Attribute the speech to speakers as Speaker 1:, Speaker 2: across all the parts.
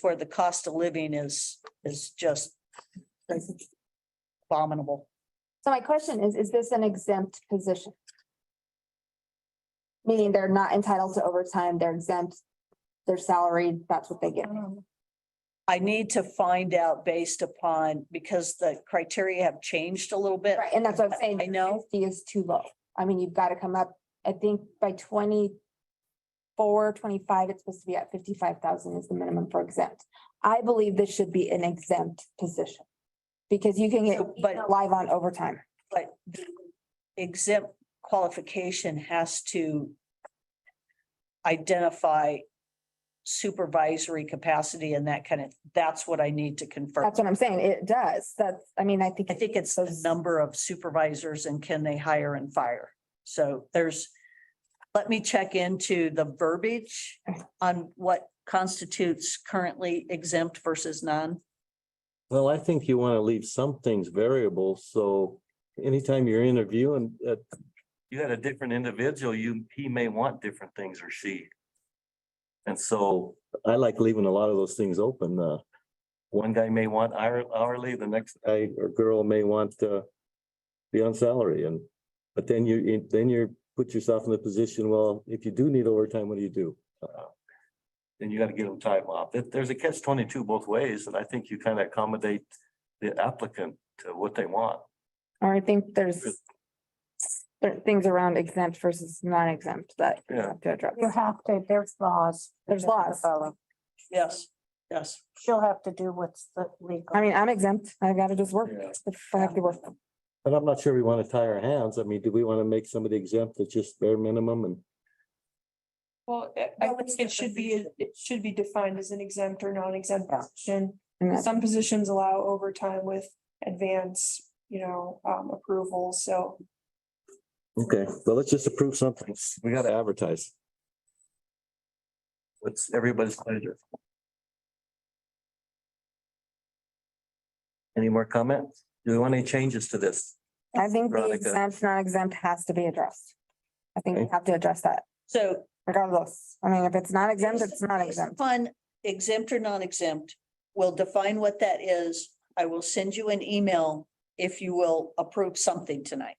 Speaker 1: for the cost of living is, is just abominable.
Speaker 2: So my question is, is this an exempt position? Meaning they're not entitled to overtime, they're exempt, they're salaried, that's what they get.
Speaker 1: I need to find out based upon, because the criteria have changed a little bit.
Speaker 2: Right, and that's what I'm saying.
Speaker 1: I know.
Speaker 2: 50 Is too low. I mean, you've got to come up, I think by 24, 25. it's supposed to be at fifty-five thousand is the minimum for exempt. I believe this should be an exempt position. Because you can get
Speaker 1: So, but-
Speaker 2: eaten alive on overtime.
Speaker 1: But the exempt qualification has to identify supervisory capacity and that kind of, that's what I need to confirm.
Speaker 2: That's what I'm saying. It does. That's, I mean, I think.
Speaker 1: I think it's the number of supervisors and can they hire and fire? So there's, let me check into the verbiage on what constitutes currently exempt versus non.
Speaker 3: Well, I think you want to leave some things variable, so anytime you're interviewing, uh, you had a different individual, you, he may want different things or she. And so. I like leaving a lot of those things open, uh. One guy may want hour- hourly, the next guy or girl may want, uh, be on salary and, but then you, you- then you're, put yourself in the position, well, if you do need overtime, what do you do?
Speaker 4: then you gotta give them time off. There- There's a catch twenty-two both ways, and I think you kind of accommodate the applicant to what they want.
Speaker 2: Or I think there's certain things around exempt versus non-exempt that. you
Speaker 4: Yeah.
Speaker 2: have to address.
Speaker 5: You have to, there's laws. you
Speaker 2: There's
Speaker 5: have to
Speaker 2: laws.
Speaker 5: follow.
Speaker 1: Yes, yes.
Speaker 5: She'll have to do what's the legal.
Speaker 2: I mean, I'm exempt. I've got to just work.
Speaker 4: Yeah.
Speaker 2: If I have to work.
Speaker 3: But I'm not sure we want to tie our hands. I mean, do we want to make somebody exempt at just bare minimum and?
Speaker 6: Well, I- I
Speaker 1: No, it's
Speaker 6: think
Speaker 1: the
Speaker 6: it should be,
Speaker 1: position.
Speaker 6: it should be defined as an exempt or non-exempt
Speaker 1: Yeah.
Speaker 6: position.
Speaker 2: And that's-
Speaker 6: Some positions allow overtime with advance, you know, um, approval, so.
Speaker 3: Okay, well, let's just approve something. We gotta advertise.
Speaker 4: What's everybody's pleasure? Any more comments? Do we want any changes to this?
Speaker 2: I think the
Speaker 4: Veronica.
Speaker 2: exempt, non-exempt has to be addressed. I think we
Speaker 3: Okay.
Speaker 2: have to address that
Speaker 1: So
Speaker 2: regardless. I mean, if it's not exempt, it's not
Speaker 1: based
Speaker 2: exempt.
Speaker 1: upon exempt or non-exempt, we'll define what that is. I will send you an email if you will approve something tonight.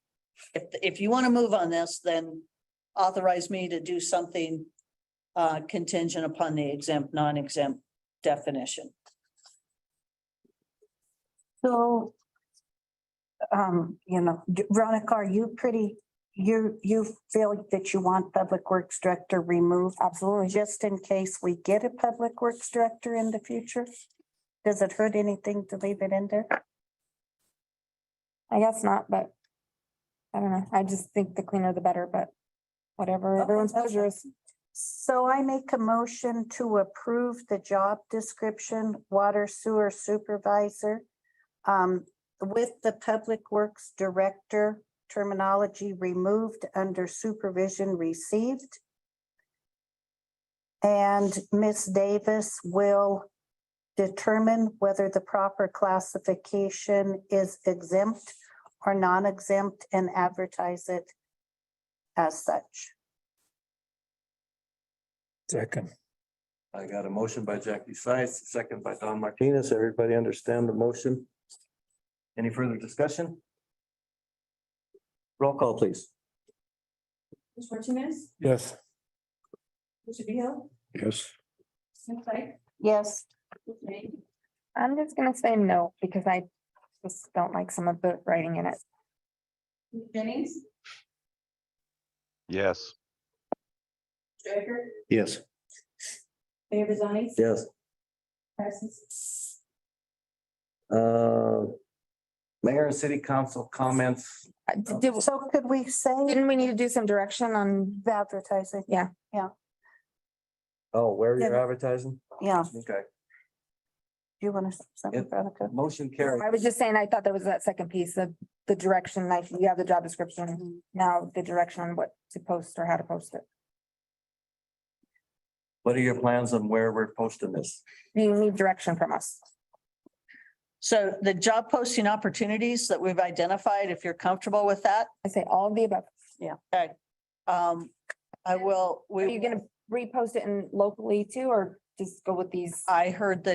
Speaker 1: If, if you want to move on this, then authorize me to do something uh, contingent upon the exempt, non-exempt definition.
Speaker 5: So, um, you know, Veronica, are you pretty, you, you feel that you want Public Works Director removed? Absolutely. Just in case we get a Public Works Director in the future? Does it hurt anything to leave it in there?
Speaker 2: I guess not, but I don't know. I just think the cleaner the better, but whatever
Speaker 5: Okay,
Speaker 2: everyone's
Speaker 5: okay.
Speaker 2: pleasure is.
Speaker 5: So I make a motion to approve the job description, water sewer supervisor. um, with the Public Works Director terminology removed under supervision received. And Ms. Davis will determine whether the proper classification is exempt or non-exempt and advertise it as such.
Speaker 4: I got a motion by Jackie Sides, second by Don Martinez. Everybody understand the motion? Any further discussion?
Speaker 3: Roll call, please.
Speaker 7: Ms. Martinez?
Speaker 8: Yes.
Speaker 7: Mr. Beal?
Speaker 8: Yes.
Speaker 7: Ms. Clay?
Speaker 5: Yes.
Speaker 7: Ms. May?
Speaker 2: I'm just gonna say no because I just don't like some of the writing in it.
Speaker 7: Ms. Jennings?
Speaker 9: Yes.
Speaker 7: Mr. Ecker?
Speaker 8: Yes.
Speaker 7: Mayor Barsoni?
Speaker 4: Yes.
Speaker 7: Passes.
Speaker 4: Uh, Mayor and city council comments.
Speaker 2: Uh, d- did-
Speaker 5: So could we say
Speaker 2: Didn't we need to do some direction on,
Speaker 5: advertising?
Speaker 4: Oh, where you're advertising?
Speaker 5: Yeah,
Speaker 4: Okay,
Speaker 5: do you want to, something,
Speaker 4: It-
Speaker 5: Veronica?
Speaker 4: motion carried.
Speaker 2: I was just saying, I thought there was that second piece of the direction, like you have the job description, now the direction on what to post or how to post it.
Speaker 4: What are your plans on where we're posting this?
Speaker 2: You need direction from us.
Speaker 1: So the job posting opportunities that we've identified, if you're comfortable with that,
Speaker 2: I say all of the above.
Speaker 1: um, I will,
Speaker 2: Are
Speaker 1: we,
Speaker 2: you gonna repost it in locally too, or just go with these?
Speaker 1: I heard that